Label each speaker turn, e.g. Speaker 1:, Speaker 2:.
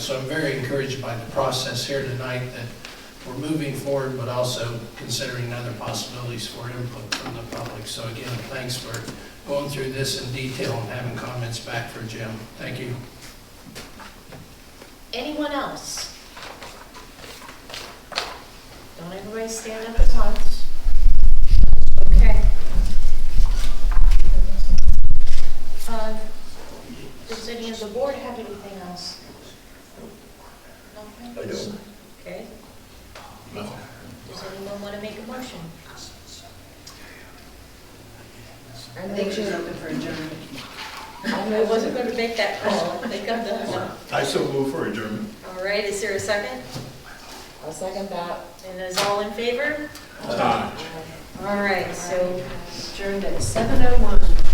Speaker 1: So I'm very encouraged by the process here tonight that we're moving forward, but also considering other possibilities for input from the public. So again, thanks for going through this in detail and having comments back for Jim. Thank you.
Speaker 2: Anyone else? Don't everybody stand up at once. Okay. Uh, Does any of the board have anything else? Nothing?
Speaker 3: I don't.
Speaker 2: Okay.
Speaker 1: No.
Speaker 2: Does anyone want to make a motion?
Speaker 4: I think she's open for adjournment.
Speaker 2: I wasn't going to make that call. I think I'm done.
Speaker 3: I so move for adjournment.
Speaker 2: All right, is there a second?
Speaker 4: I'll second that.
Speaker 2: And is all in favor?
Speaker 3: Aye.
Speaker 2: All right, so
Speaker 4: Adjourned at 7:01.